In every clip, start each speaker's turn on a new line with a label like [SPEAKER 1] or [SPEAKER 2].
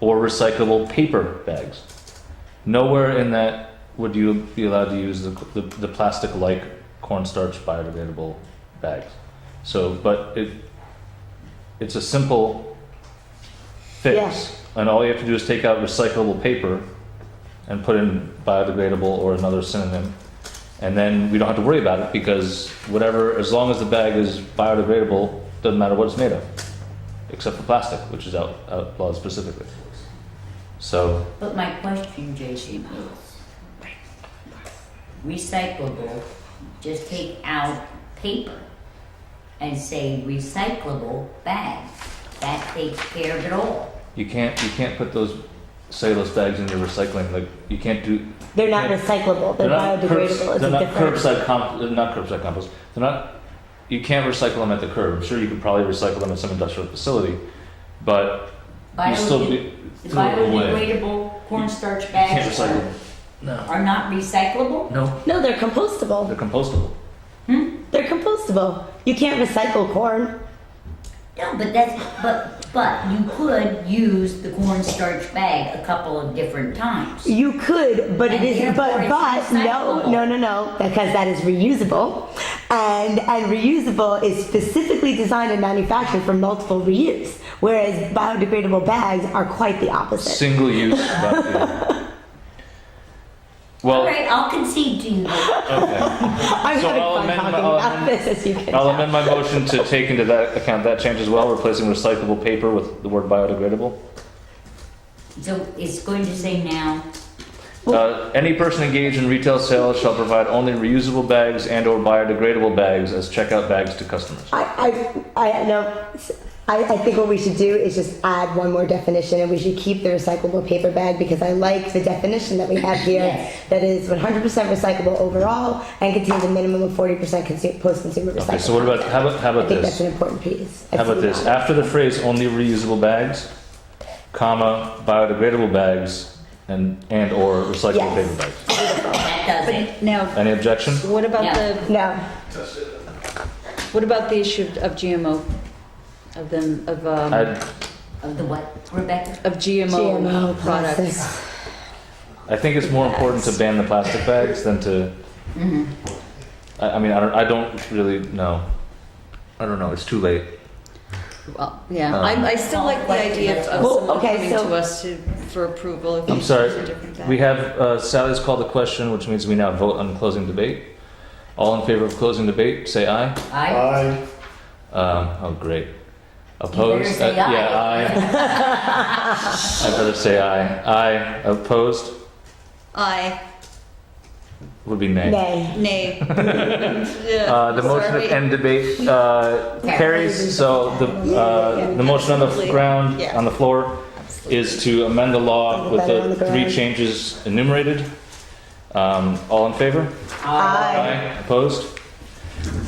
[SPEAKER 1] or recyclable paper bags. Nowhere in that would you be allowed to use the, the, the plastic like cornstarch biodegradable bags. So, but it, it's a simple fix. And all you have to do is take out recyclable paper and put in biodegradable or another synonym. And then we don't have to worry about it because whatever, as long as the bag is biodegradable, doesn't matter what it's made of, except for plastic, which is out, outlawed specifically. So,
[SPEAKER 2] But my question, Jason, is recyclable, just take out paper and say recyclable bag. That takes care of it all.
[SPEAKER 1] You can't you can't put those cellulose bags into recycling. Like you can't do.
[SPEAKER 3] They're not recyclable, they're biodegradable,
[SPEAKER 1] curbs-
[SPEAKER 3] it's a
[SPEAKER 1] they're not
[SPEAKER 3] different.
[SPEAKER 1] curbside comp. They're not curbside compost. They're not. You can't recycle them at the curb. Sure, you could probably recycle them at some industrial facility, but you still
[SPEAKER 2] Biode-
[SPEAKER 1] be
[SPEAKER 2] The
[SPEAKER 1] throw it away. You
[SPEAKER 2] biodegradable cornstarch
[SPEAKER 1] can't
[SPEAKER 2] bags
[SPEAKER 1] recycle.
[SPEAKER 2] are,
[SPEAKER 1] Them. No.
[SPEAKER 2] are not recyclable?
[SPEAKER 1] No.
[SPEAKER 3] No, they're compostable,
[SPEAKER 1] They're compostable.
[SPEAKER 3] they're compostable. You can't recycle corn.
[SPEAKER 2] No, but that's, but, but you could use the cornstarch bag a couple of different times.
[SPEAKER 3] You could, but it
[SPEAKER 2] And
[SPEAKER 3] isn't,
[SPEAKER 2] therefore
[SPEAKER 3] but,
[SPEAKER 2] it's
[SPEAKER 3] but, no,
[SPEAKER 2] recyclable.
[SPEAKER 3] no, no, no, because that is reusable. And, and reusable is specifically designed and manufactured for multiple reuse, whereas biodegradable bags are quite the opposite.
[SPEAKER 1] Single use. but, yeah. Well.
[SPEAKER 2] All right, I'll concede to you. that
[SPEAKER 1] Okay.
[SPEAKER 3] I'm
[SPEAKER 1] So
[SPEAKER 3] having
[SPEAKER 1] I'll
[SPEAKER 3] fun
[SPEAKER 1] amend my-
[SPEAKER 3] talking
[SPEAKER 1] I'll
[SPEAKER 3] about
[SPEAKER 1] amend-
[SPEAKER 3] this, as you can
[SPEAKER 1] I'll
[SPEAKER 3] tell.
[SPEAKER 1] amend my motion to take into that account that change as well, replacing recyclable paper with the word biodegradable.
[SPEAKER 2] So it's going to say now,
[SPEAKER 1] Uh, any person engaged in retail sales shall provide only reusable bags and/or biodegradable bags as checkout bags to customers.
[SPEAKER 3] I, I, I know. I, I think what we should do is just add one more definition, and we should keep the recyclable paper bag because I like the definition that we have here.
[SPEAKER 2] Yes.
[SPEAKER 3] That is 100% recyclable overall and contains a minimum of 40% consu- post-consumer recycling.
[SPEAKER 1] Okay, so what about how about how
[SPEAKER 3] I
[SPEAKER 1] about
[SPEAKER 3] think that's
[SPEAKER 1] this?
[SPEAKER 3] an important piece.
[SPEAKER 1] How about this? After the phrase "only reusable bags," comma biodegradable bags and and/or recyclable
[SPEAKER 3] Yes.
[SPEAKER 1] paper bags.
[SPEAKER 2] that does it.
[SPEAKER 4] But now,
[SPEAKER 1] Any objection?
[SPEAKER 4] what about
[SPEAKER 2] Yeah.
[SPEAKER 4] the,
[SPEAKER 3] No,
[SPEAKER 4] what about the issue of GMO? Of them, of, um,
[SPEAKER 1] I
[SPEAKER 2] Of the what, Rebecca?
[SPEAKER 4] of GMO
[SPEAKER 3] GMO
[SPEAKER 4] products?
[SPEAKER 3] products.
[SPEAKER 1] I think it's more important to ban the plastic bags than to.
[SPEAKER 2] Mhm.
[SPEAKER 1] I, I mean, I don't. I don't really know. I don't know. It's too late.
[SPEAKER 4] Well, yeah,
[SPEAKER 1] Um,
[SPEAKER 4] I, I still like the idea of of
[SPEAKER 3] Well,
[SPEAKER 4] someone
[SPEAKER 3] okay,
[SPEAKER 4] coming
[SPEAKER 3] so-
[SPEAKER 4] to us to, for approval if
[SPEAKER 1] I'm
[SPEAKER 4] these
[SPEAKER 1] sorry,
[SPEAKER 4] things are different. than-
[SPEAKER 1] We have, uh, Sally's called the question, which means we now vote on closing debate. All in favor of closing debate, say aye.
[SPEAKER 2] I,
[SPEAKER 5] Aye.
[SPEAKER 1] Um, oh, great. Opposed?
[SPEAKER 2] say
[SPEAKER 1] Uh, Yeah,
[SPEAKER 2] aye.
[SPEAKER 1] aye. I better say aye. Aye. Opposed
[SPEAKER 4] Aye,
[SPEAKER 1] would be nay.
[SPEAKER 3] nay.
[SPEAKER 4] nay.
[SPEAKER 1] Uh,
[SPEAKER 4] Uh,
[SPEAKER 1] the motion to end debate, uh,
[SPEAKER 2] Yeah.
[SPEAKER 1] carries, so the, uh, the motion on the
[SPEAKER 4] Absolutely.
[SPEAKER 1] ground,
[SPEAKER 4] Yeah.
[SPEAKER 1] on the floor, is to amend the law
[SPEAKER 3] Little
[SPEAKER 1] with
[SPEAKER 3] better on
[SPEAKER 1] the
[SPEAKER 3] the
[SPEAKER 1] three
[SPEAKER 3] ground.
[SPEAKER 1] changes enumerated. Um, all in favor?
[SPEAKER 3] Aye.
[SPEAKER 1] Opposed?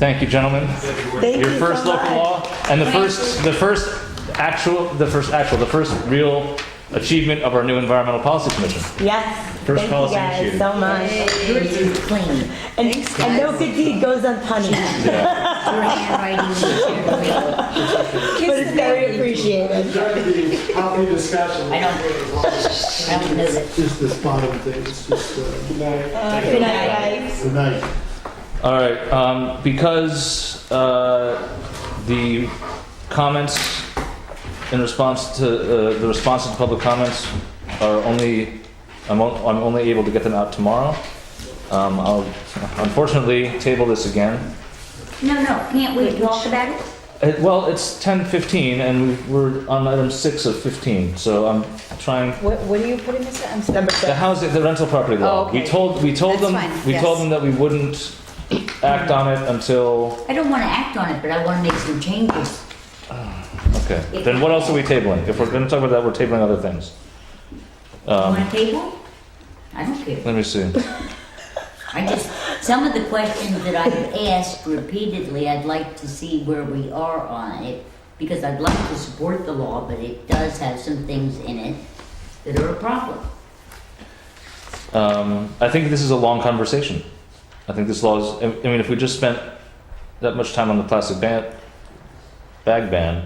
[SPEAKER 1] Thank you, gentlemen.
[SPEAKER 3] Thank
[SPEAKER 1] Your
[SPEAKER 3] you
[SPEAKER 1] first
[SPEAKER 3] so
[SPEAKER 1] local
[SPEAKER 3] much.
[SPEAKER 1] law and the first, the first actual, the first actual, the first real achievement of our new environmental policy commission.
[SPEAKER 3] Yes.
[SPEAKER 1] First
[SPEAKER 3] Thank
[SPEAKER 1] policy
[SPEAKER 3] you guys
[SPEAKER 1] issue.
[SPEAKER 3] so much.
[SPEAKER 2] Yours is clean.
[SPEAKER 3] And, and no good deed goes unpunished,
[SPEAKER 2] Your handwriting is very clean.
[SPEAKER 3] but it's very appreciated.
[SPEAKER 5] Jackie, happy discussion.
[SPEAKER 2] I don't read it. I don't know that.
[SPEAKER 5] Just this bottom thing, it's just, uh,
[SPEAKER 3] Good night, guys.
[SPEAKER 5] good night.
[SPEAKER 1] All right, um, because, uh, the comments in response to, uh, the responses to public comments are only, I'm, on- I'm only able to get them out tomorrow. Um, I'll unfortunately table this again.
[SPEAKER 2] No, no, can't we talk about it?
[SPEAKER 1] Uh, Well, it's ten fifteen, and we- we're on item six of fifteen, so I'm trying,
[SPEAKER 4] What, what are you putting this at? I'm sorry.
[SPEAKER 3] Number
[SPEAKER 1] the
[SPEAKER 3] six.
[SPEAKER 1] housing, the rental property
[SPEAKER 4] Oh,
[SPEAKER 1] law.
[SPEAKER 4] okay.
[SPEAKER 1] We told, we told
[SPEAKER 4] That's
[SPEAKER 1] them,
[SPEAKER 4] fine,
[SPEAKER 1] we told
[SPEAKER 4] yes.
[SPEAKER 1] them that we wouldn't act on it until,
[SPEAKER 2] I don't wanna act on it, but I wanna make some changes.
[SPEAKER 1] okay. Then what else are we tabling? If we're gonna talk about that, we're tabling other things.
[SPEAKER 2] You
[SPEAKER 1] Um,
[SPEAKER 2] want a table? I don't care.
[SPEAKER 1] let me see.
[SPEAKER 2] I just, some of the questions that I've asked repeatedly, I'd like to see where we are on it. Because I'd like to support the law, but it does have some things in it that are a problem.
[SPEAKER 1] Um, I think this is a long conversation. I think this law is, I I mean, if we just spent that much time on the plastic ban, bag ban,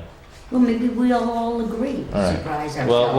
[SPEAKER 2] Well, maybe we'll all agree,
[SPEAKER 1] All right.
[SPEAKER 2] surprise
[SPEAKER 1] Well,
[SPEAKER 2] ourselves.